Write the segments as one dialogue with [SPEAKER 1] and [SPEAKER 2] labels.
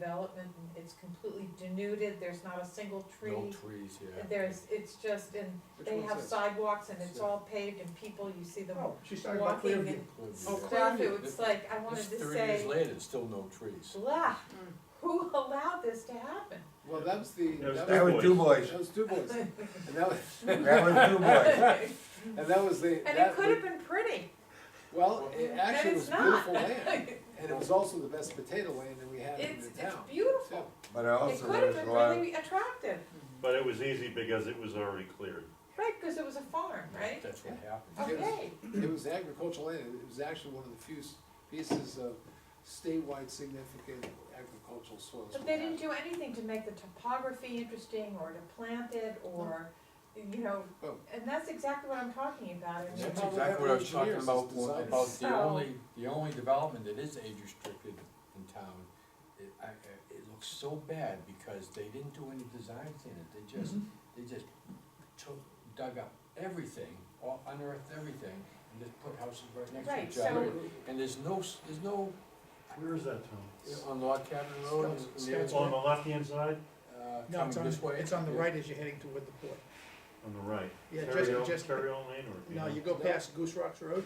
[SPEAKER 1] development, and it's completely denuded, there's not a single
[SPEAKER 2] No
[SPEAKER 1] tree.
[SPEAKER 2] trees, yeah.
[SPEAKER 1] There's, it's just, and
[SPEAKER 3] Which
[SPEAKER 1] they
[SPEAKER 3] one's
[SPEAKER 1] have
[SPEAKER 3] this?
[SPEAKER 1] sidewalks and it's
[SPEAKER 3] Yeah.
[SPEAKER 1] all paved and people, you see them
[SPEAKER 3] Oh, she's talking about
[SPEAKER 1] walking
[SPEAKER 3] Clearview.
[SPEAKER 1] and
[SPEAKER 2] Clearview,
[SPEAKER 3] Oh,
[SPEAKER 2] yeah.
[SPEAKER 1] stuff,
[SPEAKER 3] Clearview.
[SPEAKER 1] it was like, I
[SPEAKER 2] It's
[SPEAKER 1] wanted to
[SPEAKER 2] Thirty years
[SPEAKER 1] say,
[SPEAKER 2] later, there's still no trees.
[SPEAKER 1] blah,
[SPEAKER 3] Mm.
[SPEAKER 1] who allowed this to happen?
[SPEAKER 3] Well, that was the,
[SPEAKER 4] That was
[SPEAKER 3] that
[SPEAKER 4] Du
[SPEAKER 5] That
[SPEAKER 3] was,
[SPEAKER 5] was Du Bois,
[SPEAKER 3] that was Du Bois. And that was,
[SPEAKER 5] that was Du Bois.
[SPEAKER 1] And
[SPEAKER 3] and that was the,
[SPEAKER 1] it
[SPEAKER 3] that,
[SPEAKER 1] could have been pretty,
[SPEAKER 3] well, it actually
[SPEAKER 1] And
[SPEAKER 3] was
[SPEAKER 1] it's not.
[SPEAKER 3] beautiful land. And it was also the best potato land that we had in
[SPEAKER 1] it's,
[SPEAKER 3] the
[SPEAKER 1] it's
[SPEAKER 3] town. too.
[SPEAKER 1] beautiful,
[SPEAKER 5] But
[SPEAKER 1] it
[SPEAKER 5] also
[SPEAKER 1] could have
[SPEAKER 5] there's
[SPEAKER 1] been
[SPEAKER 5] a lot,
[SPEAKER 1] really attractive,
[SPEAKER 4] But it was easy because it was already cleared.
[SPEAKER 1] right, cause it was a farm, right?
[SPEAKER 2] That's what happened.
[SPEAKER 3] It was-
[SPEAKER 1] Okay,
[SPEAKER 3] It was agricultural land, it was actually one of the few s- pieces of statewide significant agricultural soils.
[SPEAKER 1] but
[SPEAKER 3] we
[SPEAKER 1] they
[SPEAKER 3] had.
[SPEAKER 1] didn't do anything to make the topography interesting or to plant it or, you know,
[SPEAKER 3] Oh.
[SPEAKER 1] and that's exactly what I'm talking about. I mean,
[SPEAKER 2] That's
[SPEAKER 3] how
[SPEAKER 2] exactly what I was talking
[SPEAKER 3] engineers
[SPEAKER 2] about,
[SPEAKER 3] is designed.
[SPEAKER 2] about the
[SPEAKER 1] So-
[SPEAKER 2] only, the only development that is age restricted in town. It, I, I- it looks so bad because they didn't do any designs in it, they just,
[SPEAKER 1] Mm-hmm.
[SPEAKER 2] they just took, dug up everything, or unearthed everything, and just put houses
[SPEAKER 1] Right,
[SPEAKER 2] right next to each
[SPEAKER 1] so-
[SPEAKER 2] other. And there's no, s- there's no, uh,
[SPEAKER 4] Where is that, Tom?
[SPEAKER 2] on Log Cabin Road, and- and the
[SPEAKER 6] Scouts-
[SPEAKER 2] other
[SPEAKER 4] On
[SPEAKER 2] one,
[SPEAKER 4] the left-hand side,
[SPEAKER 2] uh,
[SPEAKER 6] No, it's
[SPEAKER 2] coming
[SPEAKER 6] on,
[SPEAKER 2] this way.
[SPEAKER 6] it's on the
[SPEAKER 2] Yeah.
[SPEAKER 6] right as you're heading toward the port.
[SPEAKER 4] on the right.
[SPEAKER 6] Yeah,
[SPEAKER 4] Terry
[SPEAKER 6] just-
[SPEAKER 4] Owen-
[SPEAKER 6] just-
[SPEAKER 4] Terry Owen Lane or?
[SPEAKER 6] No, you go past Goose Rocks Road.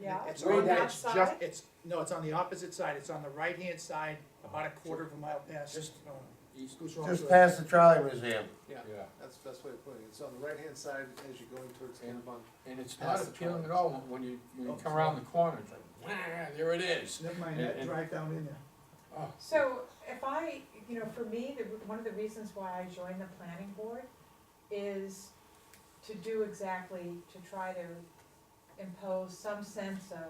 [SPEAKER 1] Yeah,
[SPEAKER 6] It's
[SPEAKER 3] Way
[SPEAKER 6] on,
[SPEAKER 1] on
[SPEAKER 3] down.
[SPEAKER 1] that
[SPEAKER 6] it's just,
[SPEAKER 1] side,
[SPEAKER 6] it's, no, it's on the opposite side, it's on the right-hand side, about a quarter of a mile past,
[SPEAKER 2] Uh-huh. Just-
[SPEAKER 6] uh,
[SPEAKER 2] East,
[SPEAKER 6] Goose Rocks
[SPEAKER 5] just
[SPEAKER 6] Road.
[SPEAKER 5] past the trolley museum.
[SPEAKER 2] yeah.
[SPEAKER 3] That's the best way of putting it, it's on the right-hand side as you're going towards
[SPEAKER 2] And-
[SPEAKER 3] Kennebunk.
[SPEAKER 2] And it's
[SPEAKER 3] Past
[SPEAKER 2] not
[SPEAKER 3] the
[SPEAKER 2] appealing at
[SPEAKER 3] trolleys.
[SPEAKER 2] all when- when you, when you come around the corner, it's like, "Wah, there it is.
[SPEAKER 6] Never mind,
[SPEAKER 2] And-
[SPEAKER 6] that
[SPEAKER 2] and-
[SPEAKER 6] drive down in there.
[SPEAKER 2] Oh,
[SPEAKER 1] so if I, you know, for me, the, one of the reasons why I joined the planning board is to do exactly, to try to impose some sense of,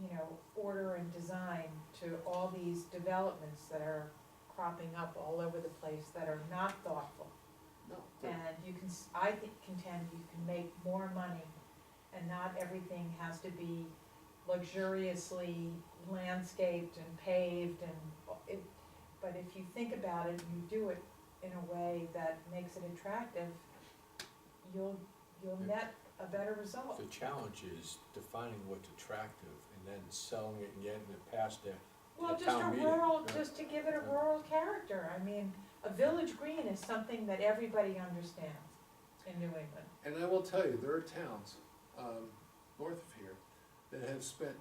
[SPEAKER 1] you know, order and design to all these developments that are cropping up all over the place that are not thoughtful.
[SPEAKER 3] No,
[SPEAKER 1] And you can, s- I think, contend you can make more money and not everything has to be luxuriously landscaped and paved and, o- it, but if you think about it, and you do it in a way that makes it attractive, you'll, you'll net a better result.
[SPEAKER 2] The challenge is defining what's attractive and then selling it and getting it past there.
[SPEAKER 1] Well,
[SPEAKER 2] the
[SPEAKER 1] just a
[SPEAKER 2] town meeting,
[SPEAKER 1] rural,
[SPEAKER 2] yeah.
[SPEAKER 1] just to give it a rural character, I mean, a village green is something that everybody understands in New England.
[SPEAKER 3] And I will tell you, there are towns, um, north of here, that have spent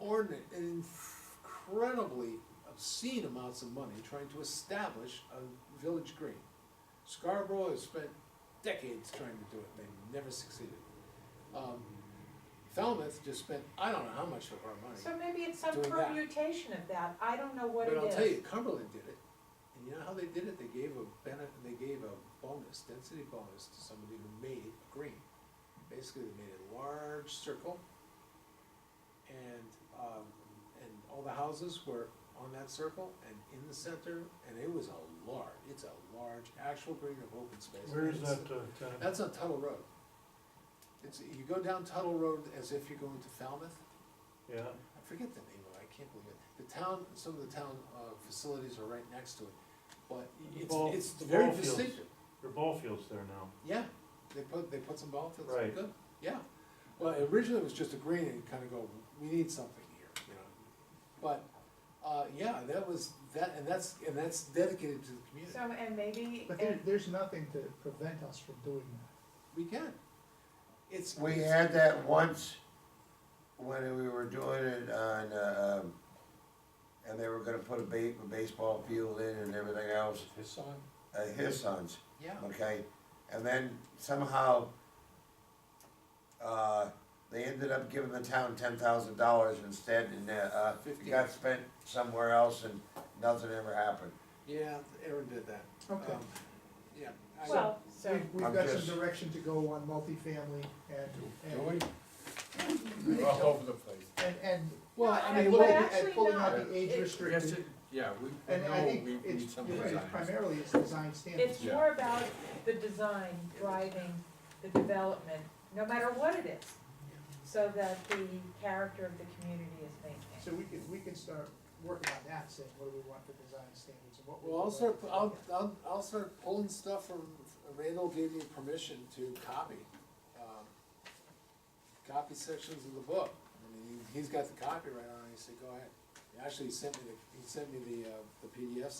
[SPEAKER 3] inordinate, incredibly obscene amounts of money trying to establish a village green. Scarborough has spent decades trying to do it, they never succeeded. Um, Falmouth just spent, I don't know how much of our money,
[SPEAKER 1] So maybe it's some
[SPEAKER 3] Doing that.
[SPEAKER 1] permutation of that, I don't know what it
[SPEAKER 3] but
[SPEAKER 1] is.
[SPEAKER 3] I'll tell you, Cumberland did it, and you know how they did it, they gave a benefit, they gave a bonus, density bonus to somebody who made a green. Basically, they made a large circle, and, um, and all the houses were on that circle and in the center, and it was a large, it's a large, actual green of open space.
[SPEAKER 4] Where is
[SPEAKER 3] It's-
[SPEAKER 4] that, uh,
[SPEAKER 3] That's on Tuttle Road. It's, you go down Tuttle Road as if you're going to Falmouth,
[SPEAKER 4] yeah,
[SPEAKER 3] I forget the name of it, I can't believe it. The town, some of the town, uh, facilities are right next to it, but
[SPEAKER 4] The
[SPEAKER 3] it's,
[SPEAKER 4] ball-
[SPEAKER 3] it's
[SPEAKER 4] the
[SPEAKER 3] very
[SPEAKER 4] ball fields.
[SPEAKER 3] distinctive.
[SPEAKER 4] there are ball fields there now.
[SPEAKER 3] Yeah, they put, they put some ball fields,
[SPEAKER 4] Right.
[SPEAKER 3] good, yeah. Well, originally it was just a green and kinda go, we need something here, you know. But, uh, yeah, that was, that, and that's, and that's dedicated to the community.
[SPEAKER 1] So, and maybe,
[SPEAKER 6] But there,
[SPEAKER 1] and,
[SPEAKER 6] there's nothing to prevent us from doing that.
[SPEAKER 3] We can. It's.
[SPEAKER 5] We
[SPEAKER 3] it's-
[SPEAKER 5] had that once when we were doing it on, uh, um, and they were gonna put a ba- a baseball field in and everything else,
[SPEAKER 2] His son,
[SPEAKER 5] uh, his sons,
[SPEAKER 3] Yeah,
[SPEAKER 5] okay? And then somehow, uh, they ended up giving the town ten thousand dollars instead and, uh, uh, it got spent somewhere else and nothing ever happened.
[SPEAKER 3] yeah, Aaron did that.
[SPEAKER 6] Okay.
[SPEAKER 3] Um, Yeah. I-
[SPEAKER 1] well, so,
[SPEAKER 6] We've, we've
[SPEAKER 5] I'm
[SPEAKER 6] got
[SPEAKER 5] just-
[SPEAKER 6] some direction to go on multifamily
[SPEAKER 2] do,
[SPEAKER 6] and,
[SPEAKER 2] do
[SPEAKER 6] and,
[SPEAKER 2] we? We're all over the place.
[SPEAKER 6] and, and
[SPEAKER 3] Well,
[SPEAKER 1] No,
[SPEAKER 3] I
[SPEAKER 6] and
[SPEAKER 3] mean,
[SPEAKER 1] but
[SPEAKER 6] pulling,
[SPEAKER 3] look,
[SPEAKER 1] actually
[SPEAKER 6] and pulling
[SPEAKER 1] not.
[SPEAKER 6] out the
[SPEAKER 1] It-
[SPEAKER 6] age
[SPEAKER 2] We have
[SPEAKER 6] restricted.
[SPEAKER 2] to, yeah, we, we
[SPEAKER 6] And I
[SPEAKER 2] know
[SPEAKER 6] think
[SPEAKER 2] we
[SPEAKER 6] it's,
[SPEAKER 2] need some
[SPEAKER 6] you're right, it's
[SPEAKER 2] design.
[SPEAKER 6] primarily it's design standards.
[SPEAKER 1] it's more about the design driving the development, no matter what it is. So that the character of the community is maintained.
[SPEAKER 6] So we can, we can start working on that, saying what do we want for design standards and what we.
[SPEAKER 3] Well, I'll
[SPEAKER 6] want
[SPEAKER 3] start,
[SPEAKER 6] to-
[SPEAKER 3] I'll, I'll, I'll start pulling stuff from, Randall gave me permission to copy, um, copy sections of the book. I mean, he- he's got the copyright on it, he said, go ahead. Actually, he sent me the, he sent me the, uh, the PDFs